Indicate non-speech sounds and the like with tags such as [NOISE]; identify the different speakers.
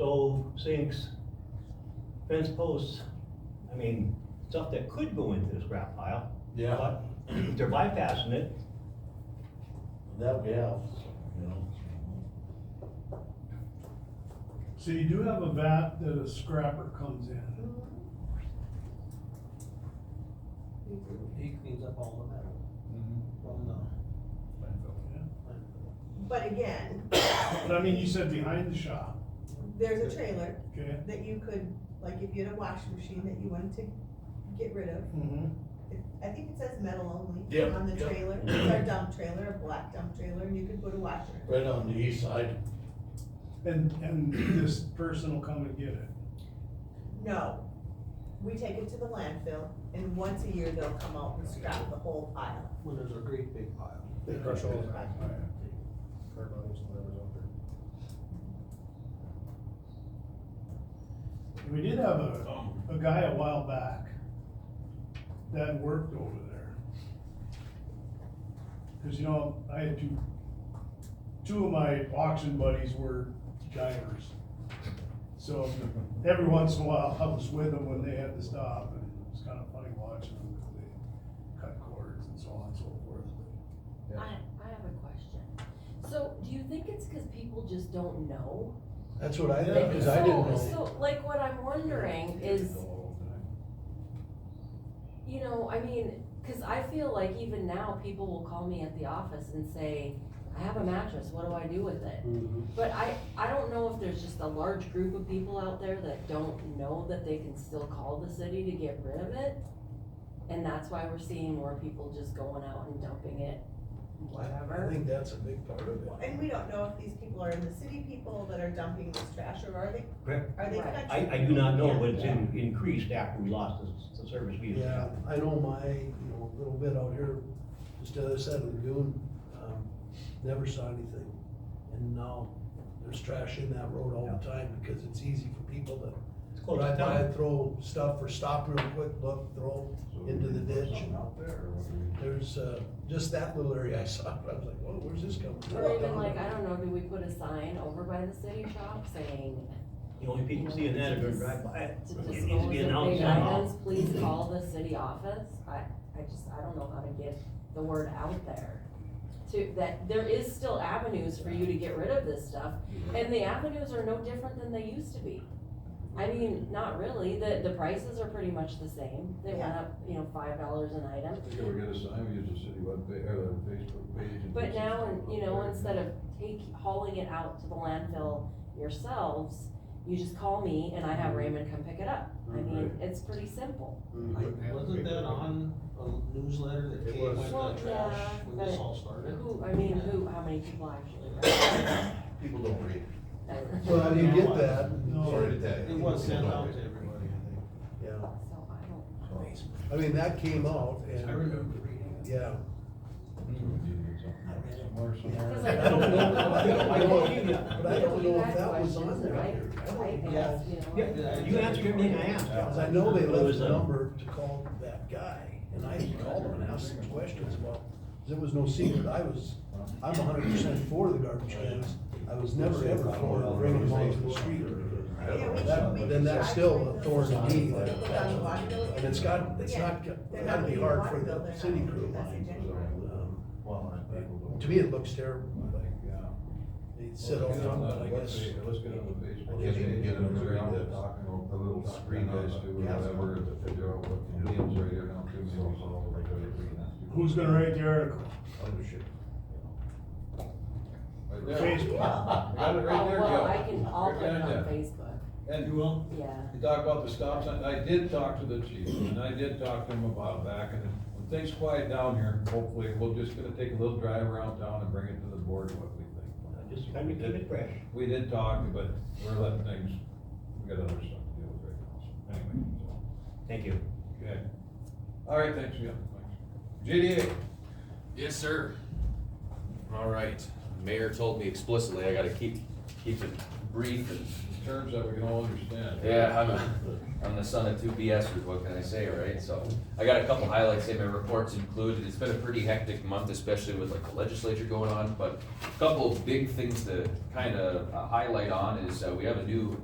Speaker 1: stove, sinks, fence posts. I mean, stuff that could go into the scrap pile.
Speaker 2: Yeah,
Speaker 1: But [CLEARS THROAT] they're bypassing it.
Speaker 2: that we have, you know.
Speaker 3: So you do have a vat that a scrapper comes in.
Speaker 4: He cleans up all the metal
Speaker 2: Mm-hmm.
Speaker 4: from the.
Speaker 5: But again,
Speaker 3: But I mean, you said behind the shop,
Speaker 5: there's a trailer
Speaker 3: okay?
Speaker 5: that you could, like, if you had a washing machine that you wanted to get rid of, it- I think it says metal only
Speaker 2: Yep,
Speaker 5: on the
Speaker 2: yep.
Speaker 5: trailer, it's our dump trailer, a black dump trailer, and you could put a washer. in it.
Speaker 2: Right on the east side.
Speaker 3: And, and this person will come and get it.
Speaker 5: No, we take it to the landfill, and once a year they'll come out and scrap the whole pile.
Speaker 4: When there's a great big pile.
Speaker 6: They crush all the
Speaker 5: Right.
Speaker 6: car bodies and whatever's out there.
Speaker 3: We did have a, a guy a while back that worked over there. Cause you know, I had two, two of my auction buddies were divers. So every once in a while, I was with them when they had to stop and it was kinda funny watching them, 'cause they cut cords and so on and so forth.
Speaker 7: I, I have a question. So do you think it's because people just don't know?
Speaker 2: That's what I
Speaker 3: Yeah,
Speaker 2: thought, cause I didn't
Speaker 7: So-
Speaker 2: know.
Speaker 7: So, like, what I'm wondering is, you know, I mean, because I feel like even now, people will call me at the office and say, I have a mattress, what do I do with it?
Speaker 2: Mm-hmm.
Speaker 7: But I, I don't know if there's just a large group of people out there that don't know that they can still call the city to get rid of it. And that's why we're seeing more people just going out and dumping it,
Speaker 2: I
Speaker 7: whatever.
Speaker 2: think that's a big part of it.
Speaker 5: And we don't know if these people are in the city people that are dumping this trash, or are they,
Speaker 1: Correct.
Speaker 5: are they
Speaker 7: Right.
Speaker 5: country?
Speaker 1: I, I do not know, but it's in- increased after we lost the, the service we used to
Speaker 2: Yeah,
Speaker 1: have.
Speaker 2: I know my, you know, little bit out here, just the other side of the lagoon, um, never saw anything. And now there's trash in that road all the time because it's easy for people to
Speaker 1: It's close to
Speaker 2: drive by,
Speaker 1: town.
Speaker 2: and throw stuff or stop real quick, look, throw into the ditch. and
Speaker 6: Out there or what do you-
Speaker 2: There's, uh, just that little area I [LAUGHS] saw, I was like, whoa, where's this coming from?
Speaker 7: Or even like, I don't know, do we put a sign over by the city shop saying,
Speaker 1: The only people seeing that are gonna drive by it.
Speaker 7: to
Speaker 1: It
Speaker 7: dispose
Speaker 1: needs to
Speaker 7: of
Speaker 1: be
Speaker 7: big
Speaker 1: announced somehow.
Speaker 7: items, please call the city office. I, I just, I don't know how to get the word out there. To, that there is still avenues for you to get rid of this stuff, and the avenues are no different than they used to be. I mean, not really, the, the prices are pretty much the same, they went up, you know, five dollars an item.
Speaker 8: I think we get a sign, we use the city web, pa- or the Facebook page. and
Speaker 7: But
Speaker 8: put
Speaker 7: now,
Speaker 8: something
Speaker 7: and, you
Speaker 8: up
Speaker 7: know,
Speaker 8: there.
Speaker 7: instead of take, hauling it out to the landfill yourselves, you just call me and I have Raymond come pick it up. I mean, it's pretty simple.
Speaker 2: mm-hmm.
Speaker 4: Wasn't that on a newsletter that
Speaker 6: It
Speaker 4: came
Speaker 6: was.
Speaker 4: with
Speaker 7: Well,
Speaker 4: the trash
Speaker 7: yeah,
Speaker 4: when this
Speaker 7: but-
Speaker 4: all started?
Speaker 7: Who, I mean, who, how many people actually read
Speaker 6: People don't read.
Speaker 7: it?
Speaker 2: Well, I didn't get that.
Speaker 3: No.
Speaker 6: Sorry to tell you.
Speaker 4: It was sent
Speaker 6: People don't
Speaker 4: out
Speaker 6: read.
Speaker 4: to everybody, I
Speaker 2: Yeah,
Speaker 7: So I don't.
Speaker 2: I mean, that came out
Speaker 4: think. I
Speaker 2: and,
Speaker 4: remember reading it.
Speaker 2: yeah.
Speaker 8: So we need to get something somewhere,
Speaker 7: [LAUGHS]
Speaker 8: somewhere.
Speaker 7: Because
Speaker 2: Mm-hmm. [LAUGHS] I don't know, I don't [LAUGHS] know,
Speaker 7: I
Speaker 2: but I don't
Speaker 7: you
Speaker 2: know if
Speaker 7: had
Speaker 2: that was
Speaker 7: questions,
Speaker 2: on there.
Speaker 7: right?
Speaker 2: I don't
Speaker 7: I
Speaker 2: know.
Speaker 7: asked, you know.
Speaker 1: Yeah, you answered everything I asked.
Speaker 2: Cause I know they
Speaker 1: It was
Speaker 2: left
Speaker 1: a-
Speaker 2: a number to call that guy, and I called him and asked him questions about, there was no secret, I was, I'm hundred percent for the garbage cans. I was never ever for bringing them onto the street,
Speaker 5: Yeah, we should-
Speaker 2: That-
Speaker 5: we
Speaker 2: but
Speaker 5: should
Speaker 2: then that's
Speaker 5: try
Speaker 2: still
Speaker 5: to
Speaker 2: a
Speaker 5: make
Speaker 2: thorn
Speaker 5: those
Speaker 2: in the knee,
Speaker 5: people
Speaker 2: that-
Speaker 5: down the water bill.
Speaker 2: and it's got, it's
Speaker 5: Yeah.
Speaker 2: not,
Speaker 5: They're
Speaker 2: it
Speaker 5: not
Speaker 2: had to be
Speaker 5: being
Speaker 2: hard
Speaker 5: water
Speaker 2: for
Speaker 5: bill,
Speaker 2: the
Speaker 5: they're
Speaker 2: city
Speaker 5: not
Speaker 2: crew.
Speaker 5: being messaged anyway.
Speaker 2: Um,
Speaker 6: Well, and people don't.
Speaker 2: To me, it looks terrible,
Speaker 6: Like, yeah.
Speaker 2: they sit all done, but I guess.
Speaker 8: Let's get on the Facebook.
Speaker 6: I guess we can get them to
Speaker 8: They're out
Speaker 6: read the-
Speaker 8: talking over The little
Speaker 6: talking
Speaker 8: screen
Speaker 6: about
Speaker 8: guys
Speaker 6: it.
Speaker 8: do, or
Speaker 6: Yeah.
Speaker 8: whatever, to figure out what the deals are, you're not too many people all over there reading that.
Speaker 3: Who's gonna write the article?
Speaker 6: Other shit.
Speaker 8: Right there.
Speaker 3: Facebook.
Speaker 8: Got it right
Speaker 7: Oh,
Speaker 8: there,
Speaker 7: well,
Speaker 8: Gil.
Speaker 7: I can, I'll
Speaker 8: Right
Speaker 7: put it
Speaker 8: there,
Speaker 7: on
Speaker 8: yeah.
Speaker 7: Facebook,
Speaker 8: And you will?
Speaker 7: yeah.
Speaker 8: You talk about the stop sign, I did talk to the chief, and I did talk to him about back, and when things quiet down here, hopefully, we're just gonna take a little drive around town and bring it to the board, what we think.
Speaker 1: Just kind of keep it fresh.
Speaker 8: We did talk, but we're letting things, we got other stuff to deal with right now, so anyway, so,
Speaker 1: Thank you.
Speaker 8: okay. All right, thanks, yeah, thanks. JDA,
Speaker 9: Yes, sir. All right, mayor told me explicitly I gotta keep, keep it brief and,
Speaker 8: terms that we can all understand.
Speaker 9: yeah, I'm a, I'm the son of two BSers, what can I say, right? So, I got a couple highlights in my reports included, it's been a pretty hectic month, especially with like the legislature going on, but a couple of big things to kind of highlight on is, uh, we have a new